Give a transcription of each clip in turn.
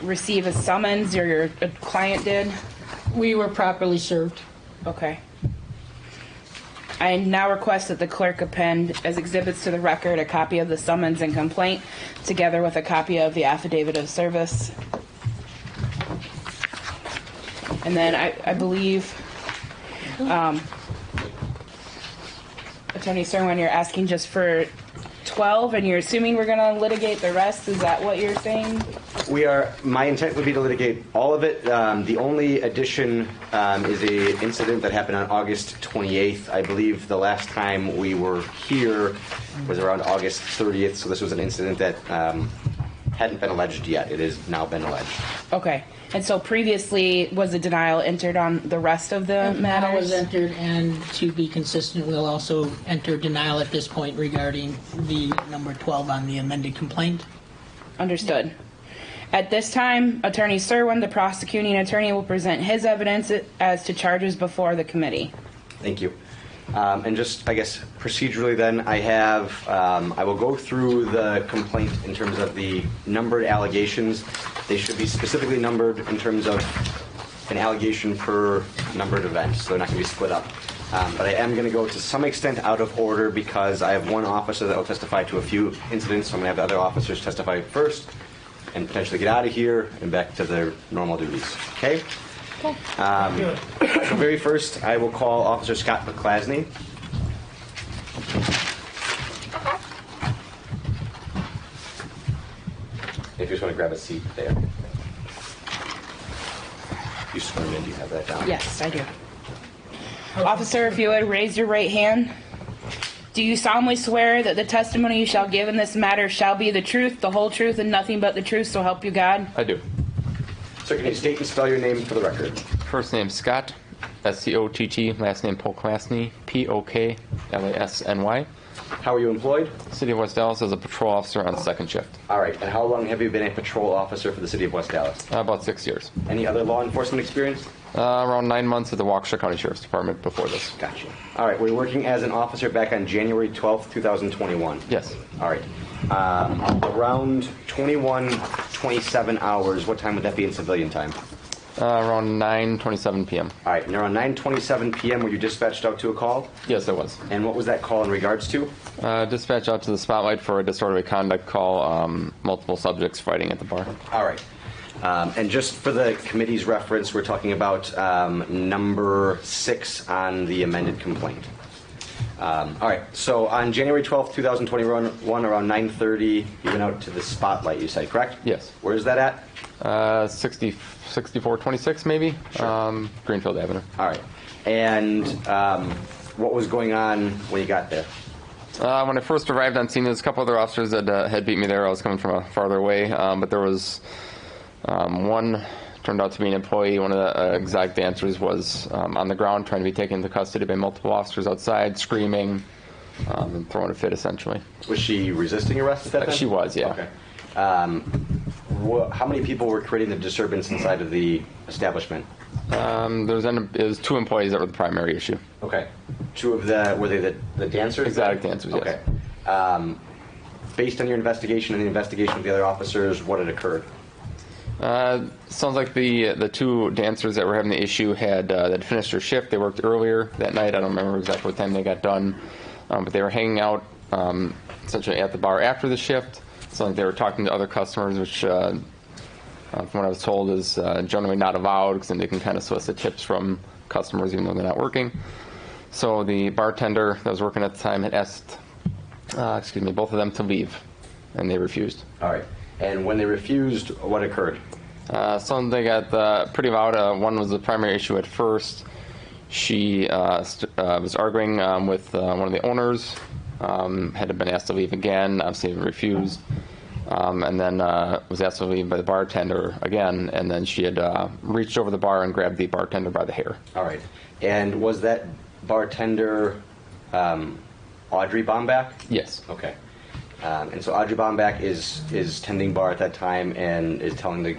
receive a summons or your client did? We were properly served. Okay. I now request that the clerk append as exhibits to the record a copy of the summons and complaint, together with a copy of the affidavit of service. And then I, I believe, um, Attorney Serwin, you're asking just for 12, and you're assuming we're gonna litigate the rest? Is that what you're saying? We are, my intent would be to litigate all of it. Um, The only addition um, is a incident that happened on August 28th. I believe the last time we were here was around August 30th, so this was an incident that um, hadn't been alleged yet. It has now been alleged. Okay. And so previously, was a denial entered on the rest of the Denial was matters? entered, and to be consistent, we'll also enter denial at this point regarding the number 12 on the amended complaint. Understood. At this time, Attorney Serwin, the prosecuting attorney, will present his evidence as to charges before the committee. Thank you. Um, And just, I guess, procedurally then, I have, um, I will go through the complaint in terms of the numbered allegations. They should be specifically numbered in terms of an allegation per numbered event, so they're not going to be split up. Um, But I am going to go to some extent out of order because I have one officer that will testify to a few incidents, so I'm going to have the other officers testify first and potentially get out of here and back to their normal duties. Okay? So very first, I will call Officer Scott McClasney. If you just want to grab a seat there. You sworn in, do you have that down? Yes, I do. Officer, if you would raise your right hand. Do you solemnly swear that the testimony you shall give in this matter shall be the truth, the whole truth, and nothing but the truth, so help you God? I do. Sir, can you state and spell your name for the record? First name Scott, S C O T T. Last name Poklasny, P O K L A S N Y. How are you employed? City of West Dallas as a patrol officer on second shift. All right, and how long have you been a patrol officer for the city of West Dallas? Uh, about six years. Any other law enforcement experience? Uh, around nine months at the Waukesha County Sheriff's Department before this. Gotcha. All right, were you working as an officer back on January 12th, 2021? Yes. All right. Um, around 21, 27 hours, what time would that be in civilian time? Uh, around 9:27 p.m. All right, and around 9.27 p.m. were you dispatched out to a call? Yes, it was. And what was that call in regards to? Uh, dispatch out to the spotlight for a disorderly conduct call. Um, multiple subjects fighting at the bar. All right. Um, and just for the committee's reference, we're talking about um, number six on the amended complaint. Um, all right, so on January 12th, 2021, around 9.30, you went out to the spotlight, you said, correct? Yes. Where is that at? Uh, 60, 6426 maybe. Sure. Um, Greenfield Avenue. All right. And um, what was going on when you got there? Uh, when I first arrived on scene, there was a couple other officers that uh, had beat me there. I was coming from a farther away, um, but there was um, one turned out to be an employee. One of the uh, exotic dancers was um, on the ground trying to be taken into custody by multiple officers outside, screaming um, and throwing a fit, essentially. Was she resisting arrest at that Uh, time? she was, yeah. Okay. Um, wha- how many people were creating the disturbance inside of the establishment? Um, there was, an, it was two employees that were the primary issue. Okay. Two of the were they the, the dancers? Exotic dancers, yes. Okay. Um, based on your investigation and the investigation of the other officers, what had occurred? Uh, sounds like the the two dancers that were having the issue had uh, that finished their shift. They worked earlier that night. I don't remember exactly what time they got done, um, but they were hanging out um, essentially at the bar after the shift. Sounds like they were talking to other customers, which, uh, uh, from what I was told, is uh, generally not allowed because then they can kind of solicit tips from customers even though they're not working. So the bartender that was working at the time had asked, uh, excuse me, both of them to leave, and they refused. All right. And when they refused, what occurred? Uh, something at the pretty loud. Uh, one was the primary issue at first. She uh, st- uh, was arguing um, with uh, one of the owners. Um, had been asked to leave again. Obviously refused. Um, and then uh, was asked to leave by the bartender again. And then she had uh, reached over the bar and grabbed the bartender by the hair. All right. And was that bartender um, Audrey Bombach? Yes. Okay. Um, and so Audrey Bombach is is tending bar at that time and is telling the,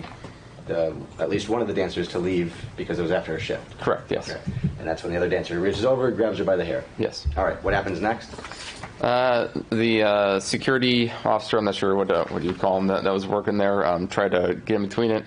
the at least one of the dancers to leave because it was after her shift. Correct. Yes. Okay. And that's when the other dancer reaches over, grabs her by the hair. Yes. All right. What happens next? Uh, the uh, security officer, I'm not sure what uh, what you call him, that, that was working there, um, tried to get in between it.